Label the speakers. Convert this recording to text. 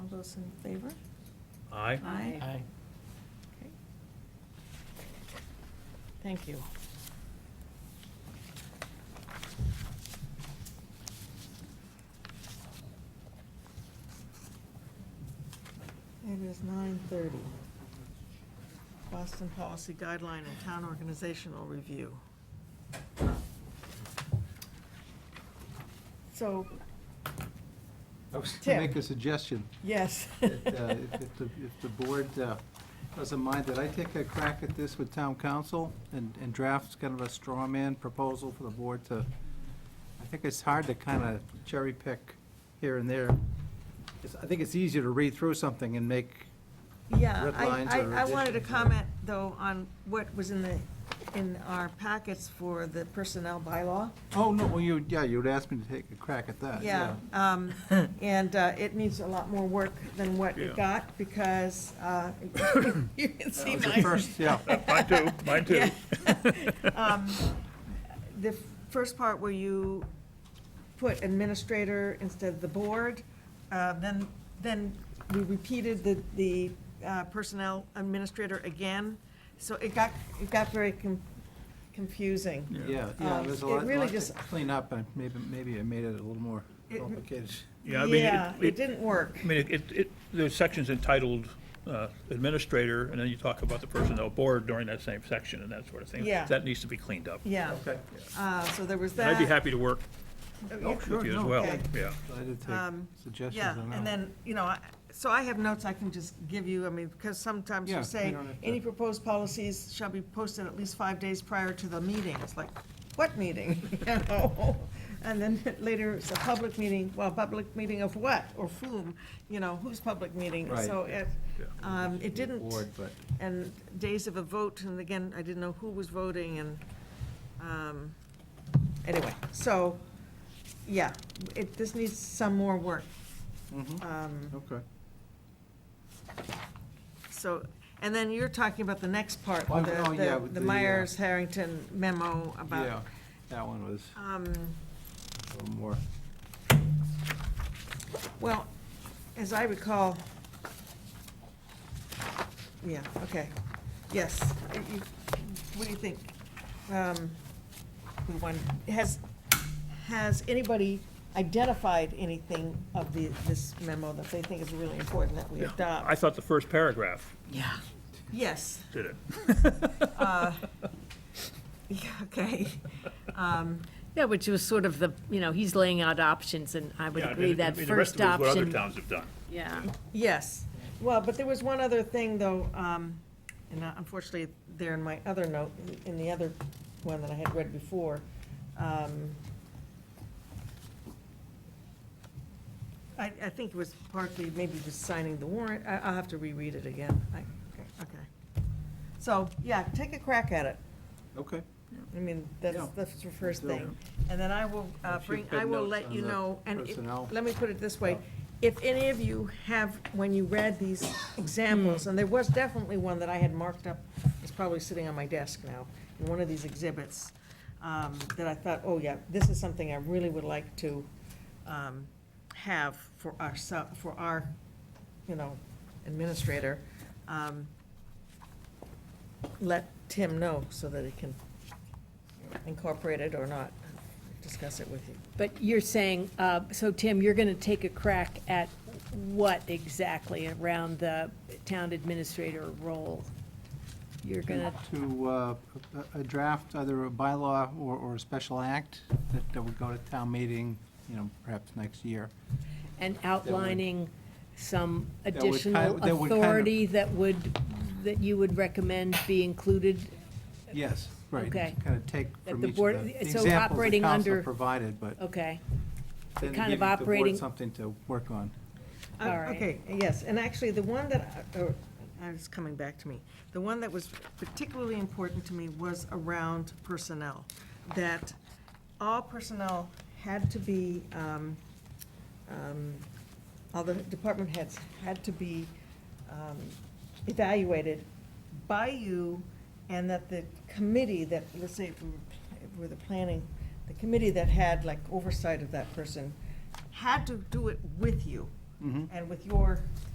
Speaker 1: those in favor?
Speaker 2: Aye.
Speaker 1: Aye.
Speaker 3: Aye.
Speaker 1: Okay. Thank you. It is nine thirty. Boston Policy Guideline and Town Organizational Review. So,
Speaker 4: I was to make
Speaker 1: Tim.
Speaker 4: a suggestion,
Speaker 1: yes.
Speaker 4: that uh, if if the, if the board uh, doesn't mind, that I take a crack at this with town council and, and draft kind of a straw man proposal for the board to, I think it's hard to kind of cherry pick here and there. It's- I think it's easier to read through something and make,
Speaker 1: Yeah,
Speaker 4: Red
Speaker 1: I,
Speaker 4: lines or
Speaker 1: I, I wanted to
Speaker 4: additions or-
Speaker 1: comment, though, on what was in the, in our packets for the personnel bylaw.
Speaker 4: oh, no, well, you, yeah, you'd ask me to take a crack at that,
Speaker 1: Yeah,
Speaker 4: Uh, yeah.
Speaker 1: um, and uh, it needs a lot more work than what it
Speaker 2: Yeah.
Speaker 1: got, because uh, you can see
Speaker 4: It's the
Speaker 1: my.
Speaker 4: first- Yeah,
Speaker 2: Mine too, mine too.
Speaker 1: Um, The first part where you put administrator instead of the board, uh, then, then we repeated the, the uh, personnel administrator again. So it got, it got very con- confusing.
Speaker 4: yeah, yeah,
Speaker 1: Um,
Speaker 4: there's a
Speaker 1: it
Speaker 4: lot,
Speaker 1: really
Speaker 4: lot to
Speaker 1: just-
Speaker 4: clean up, and maybe, maybe I made it a little more
Speaker 1: It-
Speaker 4: complicated.
Speaker 2: Yeah, I mean,
Speaker 1: Yeah,
Speaker 2: it-
Speaker 1: it
Speaker 2: it,
Speaker 1: didn't work.
Speaker 2: I mean, it- it, it, there's sections entitled uh, Administrator, and then you talk about the Personnel Board during that same section and that sort of thing.
Speaker 1: Yeah.
Speaker 2: That needs to be cleaned up.
Speaker 1: Yeah,
Speaker 4: Okay.
Speaker 1: uh, so there was
Speaker 2: And
Speaker 1: that.
Speaker 2: I'd be happy to work
Speaker 4: Oh,
Speaker 2: with
Speaker 4: sure,
Speaker 2: you as
Speaker 4: no,
Speaker 2: well,
Speaker 1: Okay.
Speaker 2: yeah.
Speaker 4: Glad to
Speaker 1: Um,
Speaker 4: take suggestions
Speaker 1: Yeah,
Speaker 4: on that.
Speaker 1: and then, you know, I- so I have notes I can just give you, I mean, because sometimes
Speaker 4: Yeah,
Speaker 1: you
Speaker 4: we
Speaker 1: say,
Speaker 4: don't have to-
Speaker 1: any proposed policies shall be posted at least five days prior to the meeting. It's like, what meeting? You know? And then later, it's a public meeting, well, public meeting of what, or whom, you know, whose public meeting?
Speaker 4: Right.
Speaker 1: So it,
Speaker 2: Yeah.
Speaker 1: um, it didn't,
Speaker 4: Board, but
Speaker 1: and days of a vote, and again, I didn't know who was voting, and, um, anyway, so, yeah, it, this needs some more work.
Speaker 4: Mhm.
Speaker 1: Um,
Speaker 4: Okay.
Speaker 1: So, and then you're talking about the next part,
Speaker 4: Oh, oh, yeah,
Speaker 1: the- the,
Speaker 4: with
Speaker 1: the
Speaker 4: the, uh,
Speaker 1: Myers-Harrington memo
Speaker 4: Yeah,
Speaker 1: about,
Speaker 4: that one was
Speaker 1: um,
Speaker 4: a little more,
Speaker 1: well, as I recall, yeah, okay, yes. Uh, you- What do you think? Um, we want- has, has anybody identified anything of the, this memo that they think is really important that we
Speaker 2: I
Speaker 1: adopt?
Speaker 2: thought the first paragraph
Speaker 3: Yeah.
Speaker 1: Yes.
Speaker 2: did it.
Speaker 1: Uh, yeah, Okay. Um,
Speaker 3: Yeah, which was sort of the, you know, he's laying out options, and I would
Speaker 2: Yeah,
Speaker 3: agree
Speaker 2: and-
Speaker 3: that
Speaker 2: I mean, the rest of
Speaker 3: first
Speaker 2: it is What other
Speaker 3: option.
Speaker 2: towns have done.
Speaker 3: Yeah,
Speaker 1: Yes, well, but there was one other thing, though, um, and unfortunately, there in my other note, in the other one that I had read before. um, I, I think it was partly maybe just signing the warrant, I, I'll have to reread it again, I, okay. So, yeah, take a crack at it,
Speaker 4: okay.
Speaker 1: I mean, that's,
Speaker 4: Yeah.
Speaker 1: that's the first
Speaker 4: Yeah.
Speaker 1: thing. And then I will uh,
Speaker 4: If you
Speaker 1: bring,
Speaker 4: could
Speaker 1: I will
Speaker 4: notes
Speaker 1: let
Speaker 4: on
Speaker 1: you
Speaker 4: the
Speaker 1: know, and it-
Speaker 4: personnel.
Speaker 1: let me put it this way. If any of you have, when you read these examples, and there was definitely one that I had marked up, it's probably sitting on my desk now, in one of these exhibits, um, that I thought, oh yeah, this is something I really would like to um, have for our, sub- for our, you know, administrator. um, Let Tim know so that he can incorporate it or not, discuss it with you.
Speaker 3: but you're saying, uh, so Tim, you're gonna take a crack at what exactly around the town administrator role? You're gonna,
Speaker 4: To, uh, a- a draft, either a bylaw or, or a special act that that would go to town meeting, you know, perhaps next year.
Speaker 3: and outlining some
Speaker 4: That would kind-
Speaker 3: additional
Speaker 4: that would kind of-
Speaker 3: authority that would, that you would recommend be included?
Speaker 4: Yes, right.
Speaker 3: Okay.
Speaker 4: Kind of take
Speaker 3: That
Speaker 4: from
Speaker 3: the
Speaker 4: each
Speaker 3: board-
Speaker 4: of the the
Speaker 3: so
Speaker 4: examples the
Speaker 3: operating
Speaker 4: council
Speaker 3: under-
Speaker 4: provided, but
Speaker 3: Okay,
Speaker 4: then to
Speaker 3: kind
Speaker 4: give
Speaker 3: of
Speaker 4: the board
Speaker 3: operating-
Speaker 4: something to work on.
Speaker 1: Uh,
Speaker 3: All right.
Speaker 1: Okay, yes, and actually, the one that, I- or, uh, it's coming back to me, the one that was particularly important to me was around personnel, that all personnel had to be, um, um, all the department heads had to be um, evaluated by you, and that the committee that, let's say, if we were if we were the planning, the committee that had like oversight of that person had to do it with you
Speaker 4: Mhm.
Speaker 1: and with your